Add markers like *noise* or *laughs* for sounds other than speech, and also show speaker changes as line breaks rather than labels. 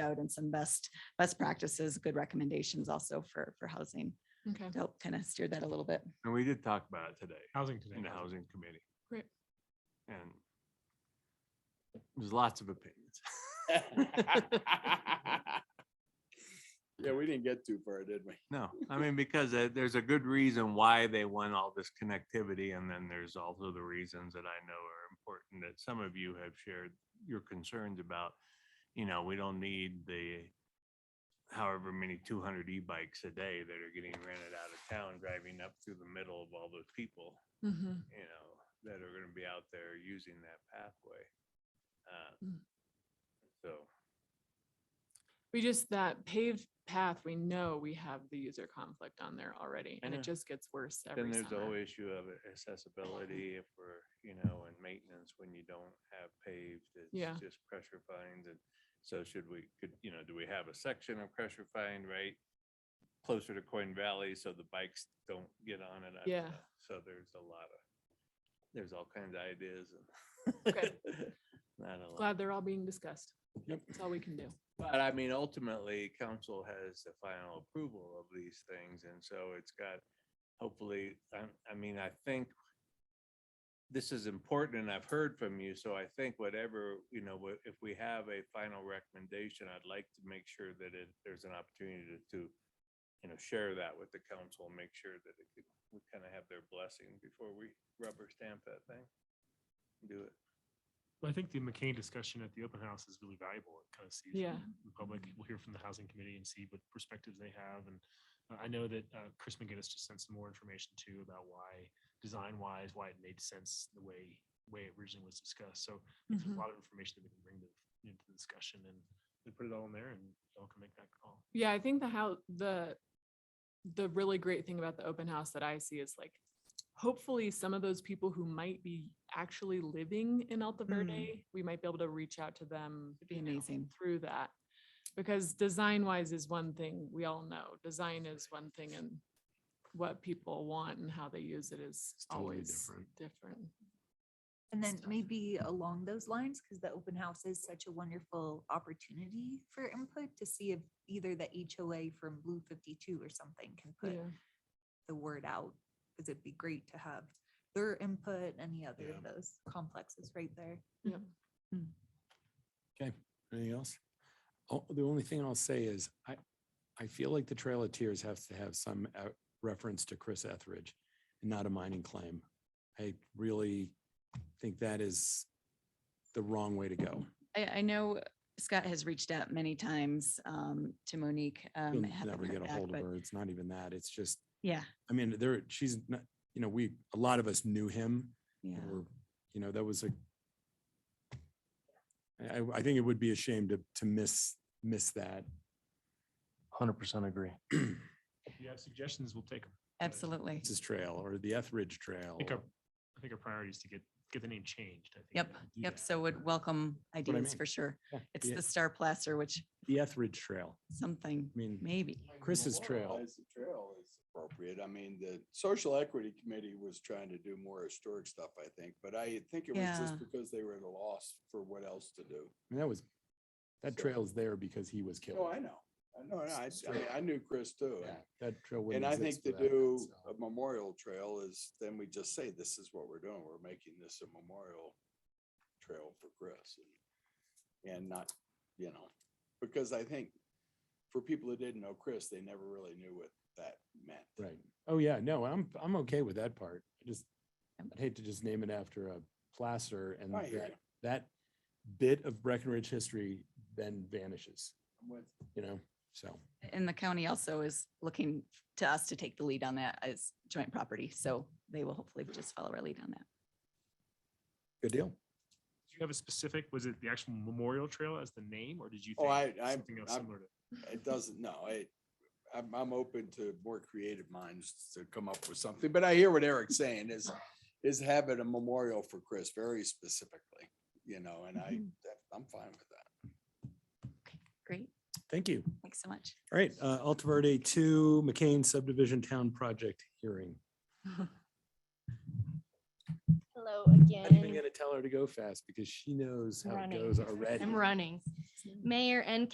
out and some best, best practices, good recommendations also for, for housing
Okay,
to help kind of steer that a little bit.
And we did talk about it today
Housing today.
in the housing committee.
Great.
And there's lots of opinions. *laughs*
*laughs*
Yeah, we didn't get too far, did we?
No, I mean, because uh, there's a good reason why they want all this connectivity. And then there's also the reasons that I know are important that some of you have shared your concerns about, you know, we don't need the however many two hundred e-bikes a day that are getting rented out of town, driving up through the middle of all those people.
Mhm.
you know, that are gonna be out there using that pathway. Uh,
Mm.
So,
we just, that paved path, we know we have the user conflict on there already and
know.
it just gets worse
then
every
there's the whole
summer.
issue of accessibility if we're, you know, and maintenance when you don't have paved,
Yeah.
it's just pressure fines and so should we, could, you know, do we have a section of pressure fine, right? Closer to Coin Valley so the bikes don't get on it. I don't
Yeah.
know. So there's a lot of, there's all kinds of ideas
Okay.
and. *laughs* not a lot.
Glad they're all being discussed.
Yep.
That's all we can do.
But I mean, ultimately, council has the final approval of these things, and so it's got, hopefully, I, I mean, I think this is important, and I've heard from you, so I think whatever, you know, wha- if we have a final recommendation, I'd like to make sure that it, there's an opportunity to, to, you know, share that with the council, and make sure that it could, we kind of have their blessing before we rubber stamp that thing. Do it.
I think the McCain discussion at the open house is really valuable. It kind of sees.
Yeah.
The public, we'll hear from the housing committee and see what perspectives they have. And uh, I know that uh, Chris McGinnis just sent some more information too about why, design wise, why it made sense the way, way it originally was discussed. So there's
Mhm.
a lot of information that we can bring to, you know, to the discussion and we put it all in there and y'all can make that call.
Yeah, I think the how, the, the really great thing about the open house that I see is like, hopefully some of those people who might be actually living in Alta Verde, we might be able to reach out to them.
It'd be
you know,
amazing.
Through that, because design wise is one thing, we all know, design is one thing and what people want and how they use it is
It's totally
always
different.
different.
And then
stuff.
maybe along those lines, because the open house is such a wonderful opportunity for input to see if either the HOA from Blue fifty-two or something can put
Yeah.
the word out. Because it'd be great to have their input, any other
Yeah.
of those complexes right there.
Yep.
Okay, anything else? Oh, the only thing I'll say is I, I feel like the Trail of Tears has to have some uh, reference to Chris Etheridge and not a mining claim. I really think that is the wrong way to go.
I, I know Scott has reached out many times um, to Monique. um,
You'll
haven't
never
heard
get a
back,
hold of
but
her. It's not even that. It's just,
Yeah,
I mean, there, she's not, you know, we, a lot of us knew him.
yeah.
or, you know, that was a. I, I- I think it would be a shame to, to miss, miss that.
Hundred percent agree.
*clears throat*
If you have suggestions, we'll take them.
Absolutely.
This Trail or the Etheridge Trail.
I think
or-
our, I think our priority is to get, get the name changed. I think,
Yep,
and do
yep.
that.
So would welcome
what I
ideas
mean.
for sure.
Yeah,
It's
the-
the Star Placer, which
The Etheridge Trail.
something,
I mean,
maybe.
Chris's trail.
Memorialize the Trail is appropriate. I mean, the Social Equity Committee was trying to do more historic stuff, I think, but I think it was
Yeah.
just because they were at a loss for what else to do.
I mean, that was, that
So-
trail's there because he was killed.
No, I know. I know, I, I mean, I knew Chris too.
Yeah, That trail wouldn't
And I think
exist
to
without that,
do
so.
a memorial trail is, then we just say, this is what we're doing. We're making this a memorial trail for Chris. and- And not, you know, because I think for people who didn't know Chris, they never really knew what that meant.
Right. Oh, yeah, no, I'm, I'm okay with that part. I just,
Yep.
I'd hate to just name it after a placer and
I hear
that,
you.
that bit of Breckenridge history then vanishes,
I'm with
you know, so.
And the county also is looking to us to take the lead on that as joint property. So they will hopefully just follow our lead on that.
Good deal.
Do you have a specific, was it the actual Memorial Trail as the name, or did you?
Oh,
think
I- I-
Something else
I'm-
similar to?
It doesn't, no, I, I'm, I'm open to more creative minds to come up with something, but I hear what Eric's saying is, is having a memorial for Chris very specifically, you know, and
Mm-hmm.
I,
Mhm.
that- I'm fine with that.
Great.
Thank you.
Thanks so much.
All right, uh, Alta Verde two McCain subdivision town project hearing.
Hello
I'm even
again.
gonna tell her to go fast because she knows how it
Running.
goes already.
I'm running. Mayor and